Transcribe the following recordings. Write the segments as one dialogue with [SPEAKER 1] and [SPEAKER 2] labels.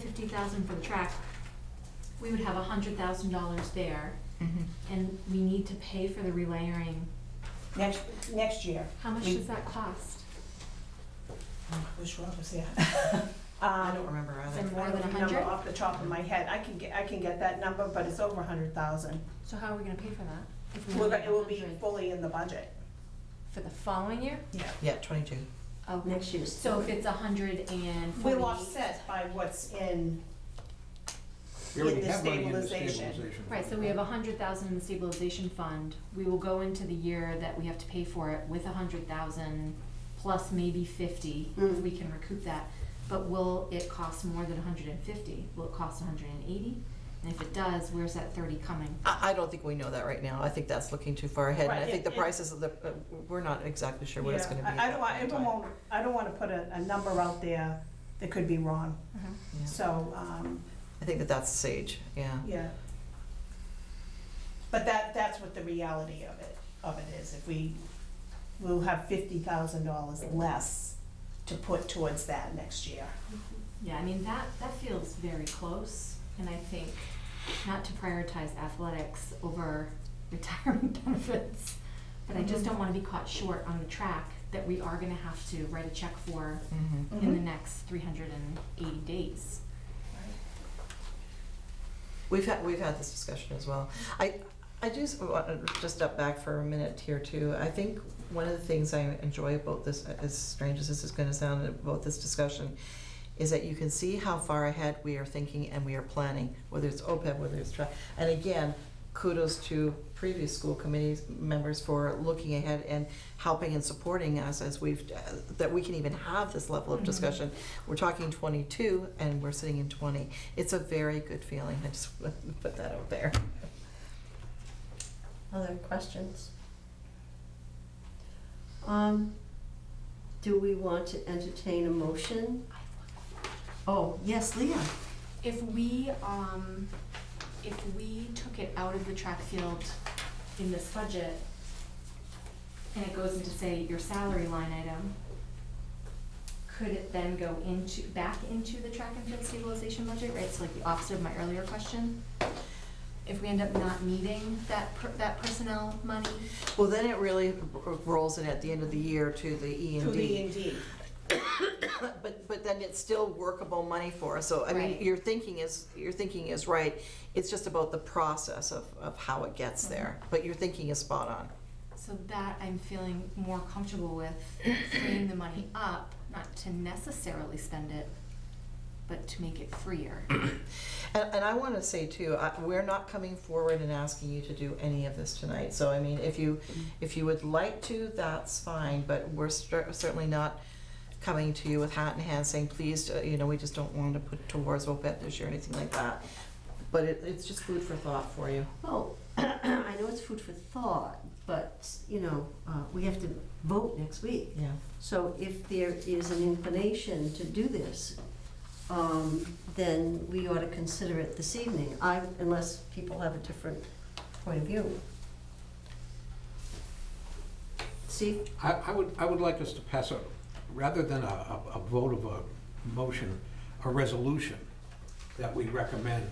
[SPEAKER 1] fifty thousand for the track, we would have a hundred thousand dollars there,
[SPEAKER 2] Mhm.
[SPEAKER 3] Mm-hmm.
[SPEAKER 1] and we need to pay for the relayering.
[SPEAKER 3] Next, next year.
[SPEAKER 1] How much
[SPEAKER 3] We-
[SPEAKER 1] does that cost?
[SPEAKER 3] Which one was that? Uh,
[SPEAKER 2] I don't remember
[SPEAKER 1] Some
[SPEAKER 2] either.
[SPEAKER 1] more
[SPEAKER 3] I
[SPEAKER 1] than
[SPEAKER 3] don't
[SPEAKER 1] a
[SPEAKER 3] remember
[SPEAKER 1] hundred?
[SPEAKER 3] off the top of my head. I can get, I can get that number, but it's over a hundred thousand.
[SPEAKER 1] So how are we gonna pay for that? If we
[SPEAKER 3] Well,
[SPEAKER 1] only
[SPEAKER 3] it will be
[SPEAKER 1] have 100
[SPEAKER 3] fully in the budget.
[SPEAKER 1] For the following year?
[SPEAKER 3] Yeah.
[SPEAKER 2] Yeah, twenty-two.
[SPEAKER 1] Okay.
[SPEAKER 4] Next year's.
[SPEAKER 1] So if it's a hundred and forty.
[SPEAKER 3] We'll offset by what's in,
[SPEAKER 5] We already
[SPEAKER 3] In the
[SPEAKER 5] have money in the
[SPEAKER 3] stabilization.
[SPEAKER 5] stabilization.
[SPEAKER 1] Right, so we have a hundred thousand in the stabilization fund. We will go into the year that we have to pay for it with a hundred thousand plus maybe fifty, if
[SPEAKER 4] Mm.
[SPEAKER 1] we can recoup that. But will it cost more than a hundred and fifty? Will it cost a hundred and eighty? And if it does, where's that thirty coming?
[SPEAKER 2] I, I don't think we know that right now. I think that's looking too far ahead, and I
[SPEAKER 3] Right,
[SPEAKER 2] think
[SPEAKER 3] it-
[SPEAKER 2] the
[SPEAKER 3] it-
[SPEAKER 2] prices of the, uh, we're not exactly sure what it's
[SPEAKER 3] Yeah,
[SPEAKER 2] gonna be
[SPEAKER 3] I- I
[SPEAKER 2] at
[SPEAKER 3] don't
[SPEAKER 2] that
[SPEAKER 3] want-
[SPEAKER 2] point in
[SPEAKER 3] I
[SPEAKER 2] time.
[SPEAKER 3] won't- I don't wanna put a, a number out there that could be wrong,
[SPEAKER 2] Yeah.
[SPEAKER 3] so, um,
[SPEAKER 2] I think that that's sage, yeah.
[SPEAKER 3] yeah. But that, that's what the reality of it, of it is, if we, we'll have fifty thousand dollars less to put towards that next year.
[SPEAKER 1] Yeah, I mean, that, that feels very close, and I think not to prioritize athletics over retirement benefits, but I just don't wanna be caught short on the track that we are gonna have to write a check for
[SPEAKER 2] Mhm.
[SPEAKER 3] 嗯
[SPEAKER 1] in the next three hundred and eighty days.
[SPEAKER 2] We've had, we've had this discussion as well. I, I do s- want to just step back for a minute here too. I think one of the things I enjoy about this, uh, as strange as this is gonna sound about this discussion, is that you can see how far ahead we are thinking and we are planning, whether it's OPEB, whether it's tri, and again, kudos to previous school committee members for looking ahead and helping and supporting us as we've, uh, that we can even have this level of
[SPEAKER 1] Mhm.
[SPEAKER 2] discussion. We're talking twenty-two and we're sitting in twenty. It's a very good feeling. I just wanted to put that out there.
[SPEAKER 4] Other questions? Um, do we want to entertain a motion? Oh, yes, Leah.
[SPEAKER 1] If we, um, if we took it out of the track field in this budget, and it goes into, say, your salary line item, could it then go into, back into the track and field stabilization budget, right? So like the opposite of my earlier question. If we end up not needing that, per- that personnel money,
[SPEAKER 2] Well, then it really r- rolls in at the end of the year to the E
[SPEAKER 3] To
[SPEAKER 2] and
[SPEAKER 3] the
[SPEAKER 2] D.
[SPEAKER 3] E and D.
[SPEAKER 2] But, but then it's still workable money for us. So, I mean,
[SPEAKER 1] Right.
[SPEAKER 2] your thinking is, your thinking is right. It's just about the process of, of how it gets
[SPEAKER 3] Mm-hmm.
[SPEAKER 2] there. But your thinking is spot on.
[SPEAKER 1] So that I'm feeling more comfortable with freeing the money up, not to necessarily spend it, but to make it freer.
[SPEAKER 2] And, and I want to say too, I, we're not coming forward and asking you to do any of this tonight. So I mean, if you, if you would like to, that's fine, but we're cer- certainly not coming to you with hat in hand saying, please, uh, you know, we just don't want to put towards OPEB this year, or anything like that. But it, it's just food for thought for you.
[SPEAKER 4] Well, I know it's food for thought, but, you know, uh, we have to vote next week.
[SPEAKER 2] Yeah.
[SPEAKER 4] So if there is an inclination to do this, um, then we ought to consider it this evening, I, unless people have a different point of view. Steve?
[SPEAKER 5] I, I would, I would like us to pass a, rather than a, a a vote of a motion, a resolution that we recommend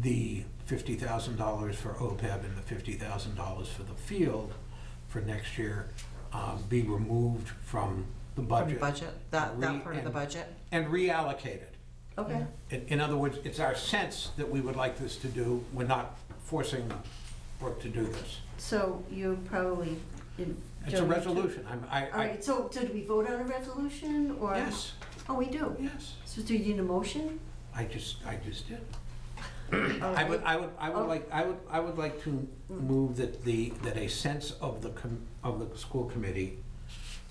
[SPEAKER 5] the fifty thousand dollars for OPEB and the fifty thousand dollars for the field for next year um, be removed from the
[SPEAKER 2] From
[SPEAKER 5] budget.
[SPEAKER 2] budget, that,
[SPEAKER 5] Re-
[SPEAKER 2] that part of the
[SPEAKER 5] and-
[SPEAKER 2] budget.
[SPEAKER 5] And reallocated.
[SPEAKER 4] Okay.
[SPEAKER 5] In, in other words, it's our sense that we would like this to do, we're not forcing Brooke to do this.
[SPEAKER 4] So you probably. you
[SPEAKER 5] It's a
[SPEAKER 4] don't-
[SPEAKER 5] resolution, I'm, I,
[SPEAKER 4] All
[SPEAKER 5] I,
[SPEAKER 4] right, so, so do we vote on a resolution or?
[SPEAKER 5] yes,
[SPEAKER 4] Oh, we do.
[SPEAKER 5] yes,
[SPEAKER 4] So do you need a motion?
[SPEAKER 5] I just, I just did.
[SPEAKER 4] All
[SPEAKER 5] I would,
[SPEAKER 4] right.
[SPEAKER 5] I would, I
[SPEAKER 4] Oh.
[SPEAKER 5] would like, I would, I would like to move that the, that a sense of the, com- of the school committee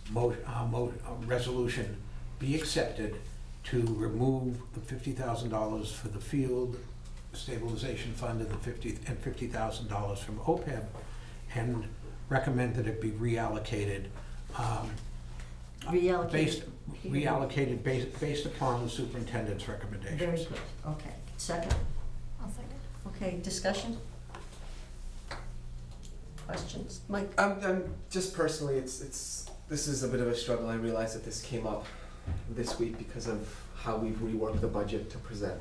[SPEAKER 5] mo, uh, mo, uh, resolution be accepted to remove the fifty thousand dollars for the field stabilization fund and the fifty, and fifty thousand dollars from OPEB and recommend that it be reallocated, um,
[SPEAKER 4] Reallocate.
[SPEAKER 5] based, reallocated based, based upon the superintendent's
[SPEAKER 4] Very
[SPEAKER 5] recommendations.
[SPEAKER 4] good, okay. Second,
[SPEAKER 1] I'll second.
[SPEAKER 4] okay, discussion? Questions? Mike?
[SPEAKER 6] I'm, I'm just personally, it's, it's, this is a bit of a struggle. I realize that this came up this week because of how we've reworked the budget to present